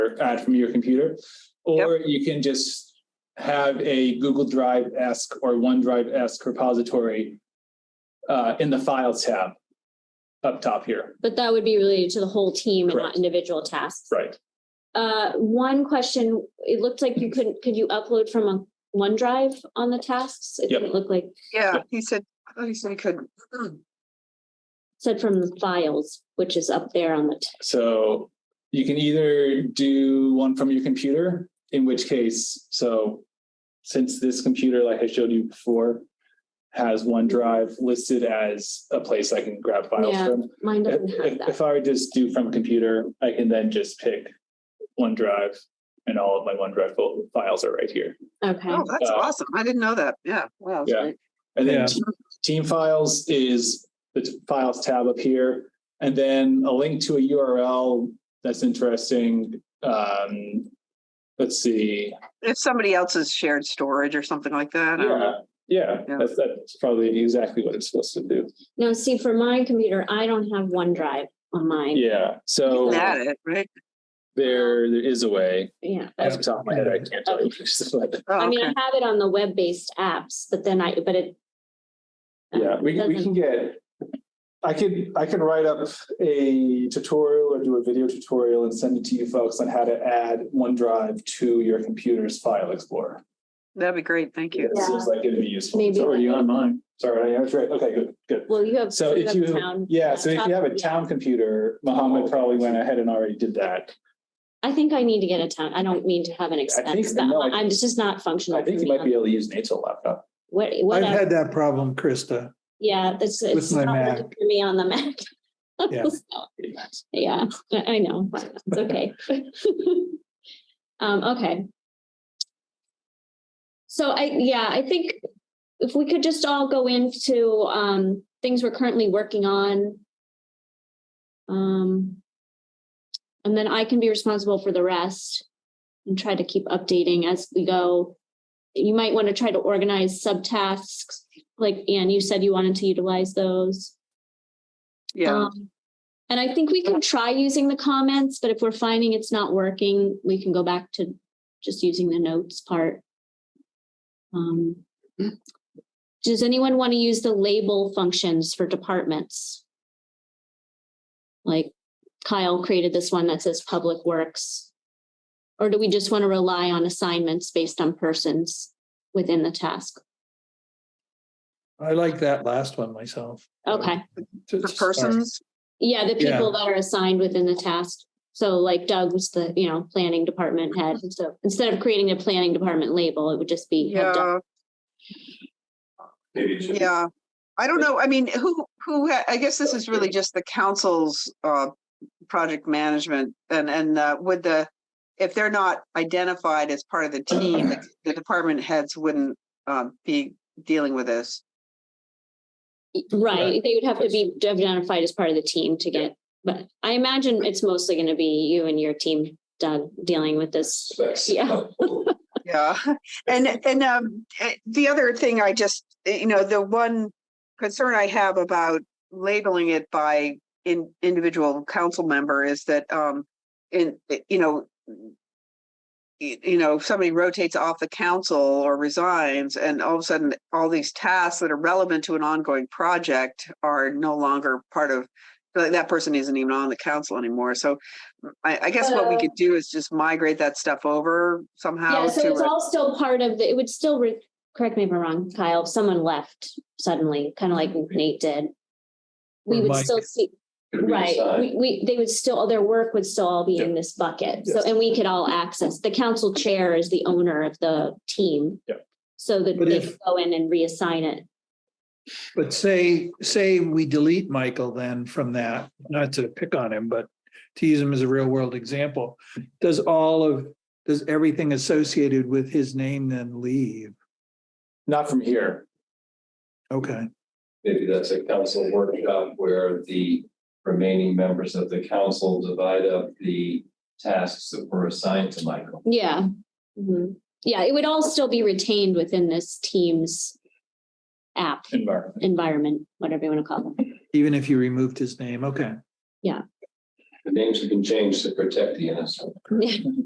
or add from your computer. Or you can just have a Google Drive-esque or OneDrive-esque repository uh, in the Files tab up top here. But that would be related to the whole team and Correct. not individual tasks. Right. Uh, one question, it looked like you couldn't, could you upload from a OneDrive on the tasks? It Yep. didn't look like, Yeah, he said, I thought he said he Oh, could. said from the files, which is up there on the, t- So you can either do one from your computer, in which case, so since this computer, like I showed you before, has OneDrive listed as a place I can grab files Yeah. from. mine If, doesn't have if- that. if I were just do from computer, I can then just pick OneDrive and all of my OneDrive fol- files are right here. Okay, Oh, that's Uh, awesome. I didn't know that. Yeah, wow. that's Yeah. great. And then Yeah. team, team files is the t- files tab up here, and then a link to a URL that's interesting. Um, let's see. If somebody else's shared storage or something like that. I don't know. Yeah, yeah, Yeah. that's that's probably exactly what it's supposed to do. now see, for my computer, I don't have OneDrive on mine. Yeah, so Isn't that it, right? there there is a way. Yeah. Off the top of my head, I can't tell you. but Oh, I mean, I okay. have it on the web-based apps, but then I, but it. yeah, we we can get. I could I could write up a tutorial or do a video tutorial and send it to you folks on how to add OneDrive to your computer's file explorer. That'd be great. Thank you. Um, It seems like it'd be useful. Maybe It's already like- on mine. Sorry, that's right. Okay, good, good. Well, you have. So if have you, town yeah, so if you have a laptop. town computer, Mohammed probably went ahead and already did that. I think I need to get a town. I don't mean to have an expense. that no, I- mu- I'm just not functional. I think for you me might be able to use Nate's old laptop. What, I've whatever. had that problem, Krista. Yeah, that's. with it's my not Mac. working For me on the Mac. Yeah. So, Yeah, I I know. It's okay. Um, okay. So I, yeah, I think if we could just all go into, um, things we're currently working on. Um, and then I can be responsible for the rest and try to keep updating as we go. You might want to try to organize subtasks, like Anne, you said you wanted to utilize those. Yeah, Um, And I think we can try using the comments, but if we're finding it's not working, we can go back to just using the notes part. Um, Does anyone want to use the label functions for departments? Like Kyle created this one that says Public Works. Or do we just want to rely on assignments based on persons within the task? I like that last one myself. Okay. To- for to start. persons. Yeah, the Yeah. people that are assigned within the task. So like Doug was the, you know, planning department head. So instead of creating a planning department label, it would just be. have Doug- Yeah, Maybe it should be- yeah. I don't know. I mean, who, who, ha- I guess this is really just the council's, uh, project management and, and, uh, would the, if they're not identified as part of the team, the department heads wouldn't, um, be dealing with this. Right, they would have to Yes. be identified as part of the team to get, but I imagine it's mostly going to be you and your team, Doug, dealing with this. That's- Yeah. Yeah, and, and, um, eh, the other thing I just, eh, you know, the one concern I have about labeling it by in, individual council member is that, um, in, eh, you know, y- you know, if somebody rotates off the council or resigns and all of a sudden all these tasks that are relevant to an ongoing project are no longer part of, like, that person isn't even on the council anymore. So mm, I, I guess what we could do is just migrate that stuff over somehow Yeah, so to it's a all still part of, the. it would still, re- correct me if I'm wrong, Kyle, if someone left suddenly, kind of like Mm-hmm. Nate did. We Or would Mike. still see, Right, we, we, they would still, their work would still all be in this bucket, so, Yes. and we could all access, the council chair is the owner of the team. Yeah. So that But they if- could go in and reassign it, But say, say we delete Michael then from that, not to pick on him, but to use him as a real world example. Does all of, does everything associated with his name then leave? Not from here. Okay, Maybe that's a council workshop where the remaining members of the council divide up the tasks that were assigned to Michael. yeah. Mhm. Yeah, it would all still be retained within this team's app, Environment. environment, whatever you want to call it. even if you removed his name, okay. The names have been changed to protect the innocent.